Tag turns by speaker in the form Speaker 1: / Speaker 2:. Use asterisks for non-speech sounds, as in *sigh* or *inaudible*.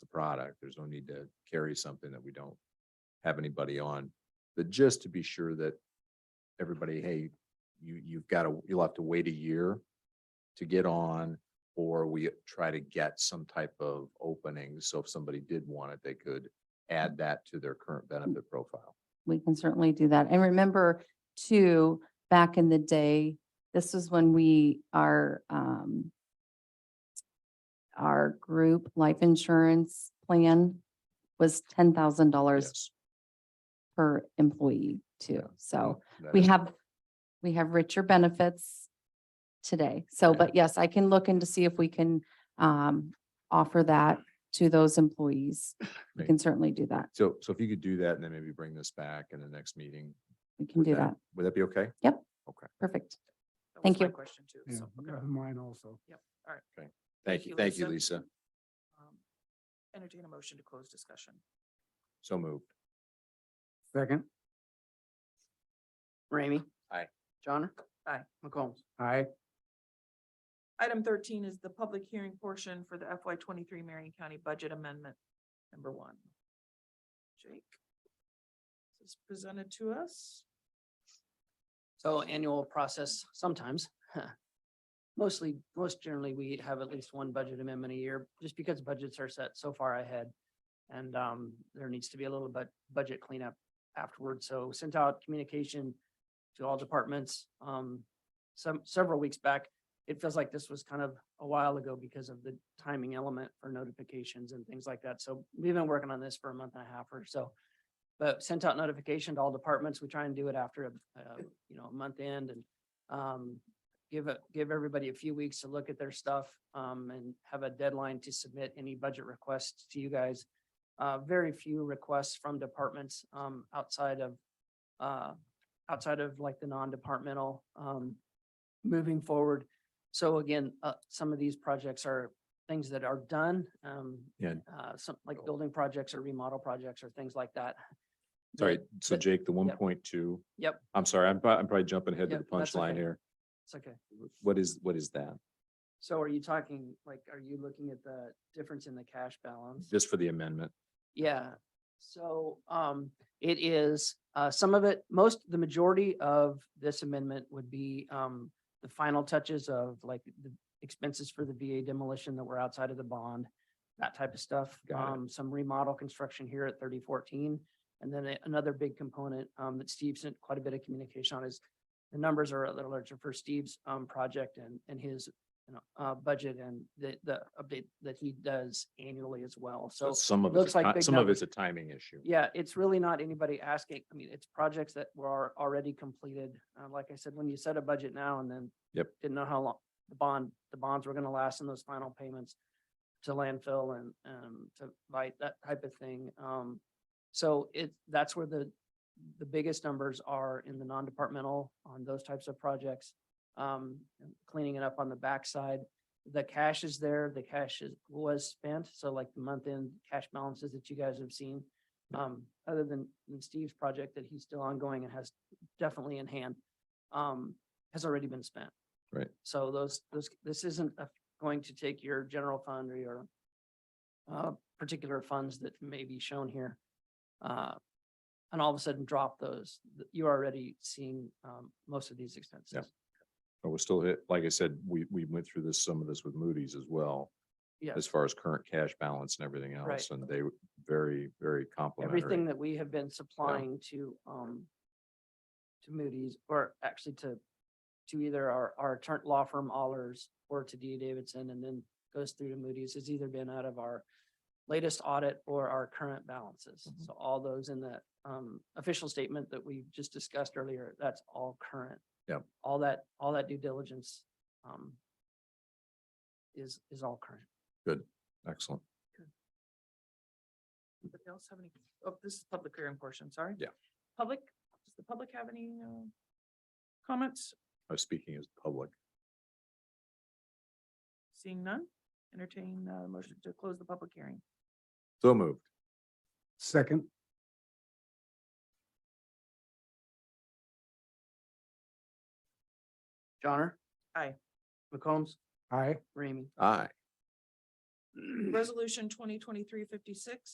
Speaker 1: product. There's no need to carry something that we don't have anybody on. But just to be sure that everybody, hey, you, you've got to, you'll have to wait a year to get on, or we try to get some type of opening. So if somebody did want it, they could add that to their current benefit profile.
Speaker 2: we can certainly do that. And remember too, back in the day, this is when we, our, um, our group life insurance plan was ten thousand dollars
Speaker 1: Yes.
Speaker 2: per employee too. So
Speaker 1: That
Speaker 2: we
Speaker 1: is-
Speaker 2: have, we have richer benefits today. So,
Speaker 1: Okay.
Speaker 2: but yes, I can look into see if we can, um, offer that to those employees. We
Speaker 1: Great.
Speaker 2: can certainly do that.
Speaker 1: So, so if you could do that and then maybe bring this back in the next meeting.
Speaker 2: We can
Speaker 1: would
Speaker 2: do that.
Speaker 1: Would that be okay?
Speaker 2: Perfect.
Speaker 3: That was
Speaker 2: Thank
Speaker 3: my
Speaker 2: you.
Speaker 3: Question too.
Speaker 4: Yeah,
Speaker 3: so, okay.
Speaker 4: uh, mine also.
Speaker 1: Thank you, thank you, Lisa.
Speaker 3: Um, Entertain a motion to close discussion.
Speaker 1: So moved.
Speaker 4: Second,
Speaker 5: Ramey.
Speaker 1: Aye.
Speaker 5: Johnner.
Speaker 3: Aye.
Speaker 5: McCombs.
Speaker 4: aye,
Speaker 3: Item thirteen is the public hearing portion for the FY twenty-three Marion County Budget Amendment Number One. Jake? This is presented to us.
Speaker 5: So annual process sometimes. *laughs* huh. Mostly, most generally, we have at least one budget amendment a year, just because budgets are set so far ahead. And um, there needs to be a little bit budget cleanup afterwards. So sent out communication to all departments. Um, some, several weeks back, it feels like this was kind of a while ago because of the timing element for notifications and things like that. So we've been working on this for a month and a half or so. But sent out notification to all departments. We try and do it after, uh, you know, a month end and um, give it, give everybody a few weeks to look at their stuff um, and have a deadline to submit any budget requests to you guys. Uh, very few requests from departments um, outside of uh, outside of like the non-departmental um, moving forward. So again, uh, some of these projects are things that are done. Um,
Speaker 1: Yeah.
Speaker 5: uh, some like building projects or remodel projects or things like that.
Speaker 1: Sorry,
Speaker 5: That-
Speaker 1: so
Speaker 5: that-
Speaker 1: Jake, the one
Speaker 5: yep.
Speaker 1: point two,
Speaker 5: Yep,
Speaker 1: I'm sorry, I'm, prob- I'm probably jumping ahead to the
Speaker 5: Yep, that's
Speaker 1: punchline
Speaker 5: okay.
Speaker 1: here.
Speaker 5: it's okay.
Speaker 1: What is, what is that?
Speaker 5: So are you talking, like, are you looking at the difference in the cash balance?
Speaker 1: Just for the amendment?
Speaker 5: Yeah, so um it is, uh some of it, most, the majority of this amendment would be um the final touches of like the expenses for the VA demolition that were outside of the bond, that type of stuff.
Speaker 1: Got it.
Speaker 5: Um some remodel construction here at thirty fourteen. And then a- another big component um that Steve sent quite a bit of communication on is the numbers are a little larger for Steve's um project and and his you know, uh budget and the the update that he does annually as well. So
Speaker 1: But Some of
Speaker 5: looks
Speaker 1: it's, a
Speaker 5: like
Speaker 1: ti-
Speaker 5: big
Speaker 1: some of
Speaker 5: numbers.
Speaker 1: it's a timing issue.
Speaker 5: yeah, it's really not anybody asking. I mean, it's projects that were already completed. Uh, like I said, when you set a budget now and then.
Speaker 1: Yep.
Speaker 5: Didn't know how long the bond, the bonds were gonna last and those final payments to landfill and, um, to light, that type of thing. Um, so it, that's where the, the biggest numbers are in the non-departmental on those types of projects. Um, cleaning it up on the backside. The cash is there, the cash is, was spent. So like the month-end cash balances that you guys have seen. Um, other than than Steve's project that he's still ongoing and has definitely in hand, um, has already been spent.
Speaker 1: Right.
Speaker 5: So those, those, this isn't a- going to take your general fund or your uh, particular funds that may be shown here. Uh, and all of a sudden drop those. Th- You're already seeing, um, most of these expenses.
Speaker 1: But we're still hit, like I said, we, we went through this, some of this with Moody's as well,
Speaker 5: Yeah,
Speaker 1: as far as current cash balance and everything
Speaker 5: Right.
Speaker 1: else. And they were very, very
Speaker 5: everything
Speaker 1: complimentary.
Speaker 5: that we have been supplying to, um, to Moody's or actually to, to either our, our attorney law firm Allers or to D A Davidson and then goes through to Moody's has either been out of our latest audit or our current balances.
Speaker 1: Mhm.
Speaker 5: So all those in the, um, official statement that we just discussed earlier, that's all current.
Speaker 1: Yep.
Speaker 5: All that, all that due diligence, um, is, is all current.
Speaker 1: Excellent.
Speaker 3: Anybody else have any, oh, this is public hearing portion, sorry.
Speaker 1: Yeah.
Speaker 3: Public, does the public have any uh, comments?
Speaker 1: I was speaking as public.
Speaker 3: Seeing none, entertain uh motion to close the public hearing.
Speaker 1: So moved.
Speaker 4: second,
Speaker 5: Johnner?
Speaker 3: Aye.
Speaker 5: McCombs?
Speaker 4: aye, *clears throat*
Speaker 5: Ramey?
Speaker 1: Aye.
Speaker 3: Resolution 2023-56.